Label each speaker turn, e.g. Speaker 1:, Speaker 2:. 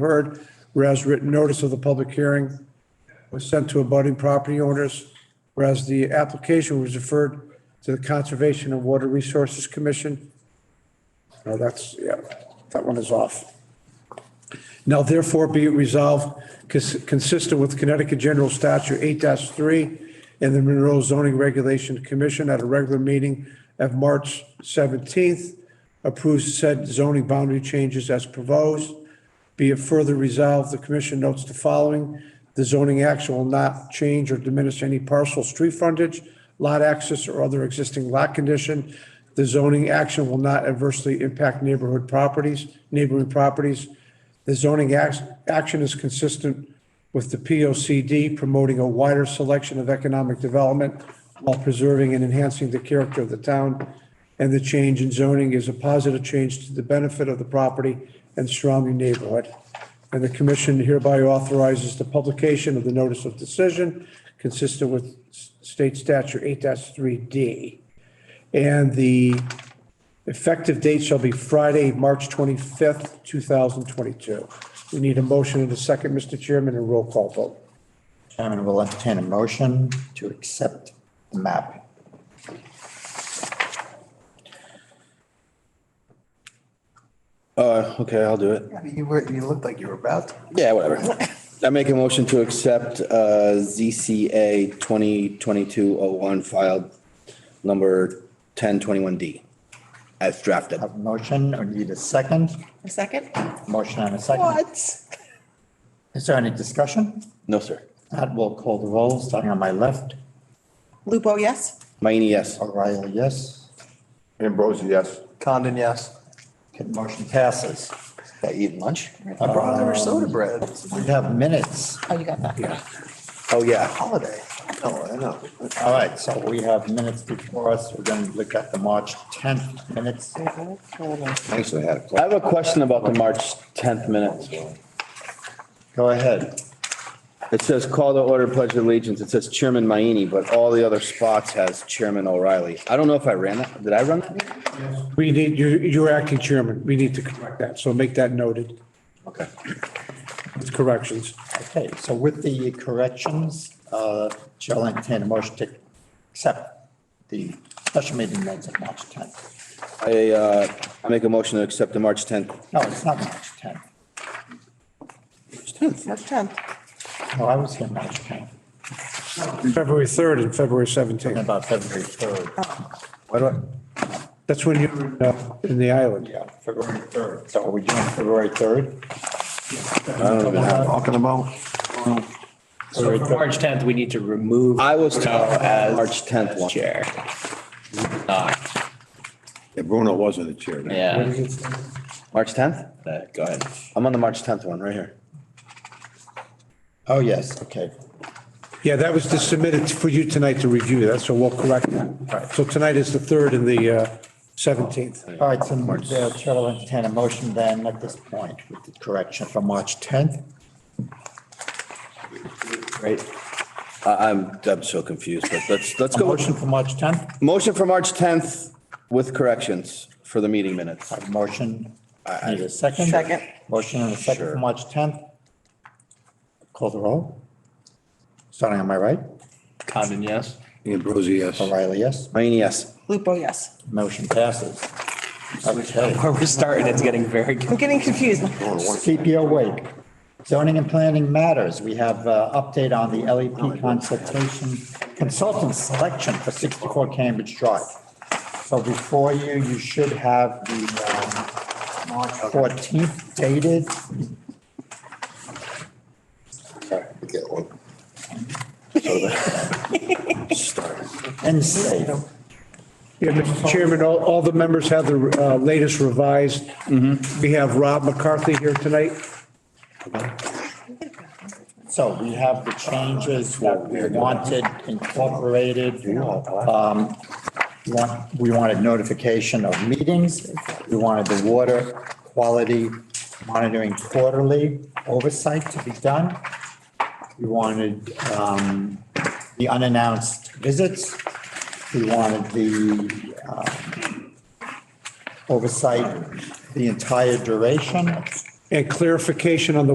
Speaker 1: heard, whereas written notice of the public hearing was sent to abutting property owners, whereas the application was referred to the Conservation and Water Resources Commission. Oh, that's, yeah, that one is off. Now therefore be it resolved, cons- consistent with Connecticut General Statute eight three and the Monroe Zoning Regulation Commission at a regular meeting of March seventeenth, approves said zoning boundary changes as proposed. Be it further resolved, the commission notes the following. The zoning action will not change or diminish any parcel street frontage, lot access, or other existing lot condition. The zoning action will not adversely impact neighborhood properties, neighboring properties. The zoning act- action is consistent with the POCD promoting a wider selection of economic development while preserving and enhancing the character of the town. And the change in zoning is a positive change to the benefit of the property and surrounding neighborhood. And the commission hereby authorizes the publication of the notice of decision consistent with s- state statute eight three D. And the Effective date shall be Friday, March 25th, 2022. We need a motion and a second, Mr. Chairman, and roll call vote.
Speaker 2: Chairman will entertain a motion to accept the map.
Speaker 3: Uh, okay, I'll do it.
Speaker 2: You were, you looked like you were about to.
Speaker 3: Yeah, whatever. I make a motion to accept, uh, ZCA twenty twenty-two oh one filed number ten twenty-one D as drafted.
Speaker 2: Have a motion or need a second?
Speaker 4: A second?
Speaker 2: Motion and a second.
Speaker 4: What?
Speaker 2: Is there any discussion?
Speaker 3: No, sir.
Speaker 2: That will call the roll, starting on my left.
Speaker 4: Lupo, yes?
Speaker 3: Mayini, yes.
Speaker 2: O'Reilly, yes.
Speaker 5: Ambrosi, yes.
Speaker 6: Condon, yes.
Speaker 2: Okay, Motion passes. Uh,
Speaker 3: I eating lunch?
Speaker 6: I brought over soda bread.
Speaker 2: We have minutes,
Speaker 4: Oh, you got that.
Speaker 3: Oh, yeah.
Speaker 2: holiday.
Speaker 6: Oh, I know.
Speaker 2: All right, so we have minutes before us. We're going to look at the March 10th minutes.
Speaker 5: Actually, I had
Speaker 3: I
Speaker 5: a question.
Speaker 3: have a question about the March tenth minutes.
Speaker 2: Go ahead.
Speaker 3: It says call to order pledge of allegiance. It says Chairman Mayini, but all the other spots has Chairman O'Reilly. I don't know if I ran that. Did I run that?
Speaker 1: We need, you're you're acting chairman, we need to correct that, so make that noted
Speaker 2: Okay.
Speaker 1: with corrections.
Speaker 2: Okay, so with the corrections, uh, Chair will entertain a motion to accept the special meeting minutes of March 10th.
Speaker 3: I, uh, I make a motion to accept the March tenth.
Speaker 2: No, it's not March 10th.
Speaker 4: March 10th.
Speaker 2: No, I was here March 10th,
Speaker 1: February 3rd and February
Speaker 2: talking
Speaker 1: 17th.
Speaker 2: about February 3rd.
Speaker 3: Why do I?
Speaker 1: That's when you're in, uh, in the island.
Speaker 2: Yeah, February 3rd. So are we doing February 3rd?
Speaker 5: Talking about,
Speaker 7: So for March 10th, we need to remove.
Speaker 3: I was
Speaker 7: Bruno
Speaker 3: told
Speaker 7: as
Speaker 3: March 10th one.
Speaker 7: Chair. Not,
Speaker 5: Yeah, Bruno wasn't the chair. then.
Speaker 7: yeah,
Speaker 3: March tenth?
Speaker 7: but go ahead.
Speaker 3: I'm on the March tenth one right here.
Speaker 2: Oh, yes, okay.
Speaker 1: Yeah, that was just submitted for you tonight to review, that's, so we'll correct that. So tonight is the 3rd and the uh, 17th.
Speaker 2: All right, so the Chair will entertain a motion then at this point with the correction for March 10th.
Speaker 3: Right. I, I'm, Mm, I'm so confused, but let's, let's
Speaker 2: A
Speaker 3: go.
Speaker 2: motion for March 10th?
Speaker 3: Motion for March tenth with corrections for the meeting minutes.
Speaker 2: A motion, need a second?
Speaker 4: Second.
Speaker 2: Motion and a second for
Speaker 3: Sure.
Speaker 2: March 10th. Call the roll. Starting on my right,
Speaker 7: Condon, yes?
Speaker 5: Ambrosi, yes.
Speaker 2: O'Reilly, yes.
Speaker 3: Mayini, yes.
Speaker 4: Lupo, yes?
Speaker 2: Motion passes. Okay,
Speaker 7: Where we're starting, it's getting very
Speaker 4: I'm getting confused.
Speaker 2: keep you awake. Zoning and planning matters, we have uh update on the LEP consultation, consultant selection for 64 Cambridge Drive. So before you, you should have the um, March 14th dated.
Speaker 5: Get one.
Speaker 2: and safe.
Speaker 1: Yeah, Mr. Chairman, all, all the members have the uh, latest revised. We have Rob McCarthy here tonight.
Speaker 2: So we have the changes that we wanted incorporated. Um, we want- We wanted notification of meetings. We wanted the water quality monitoring quarterly oversight to be done. We wanted um, the unannounced visits. We wanted the um, oversight, the entire duration.
Speaker 1: and clarification on the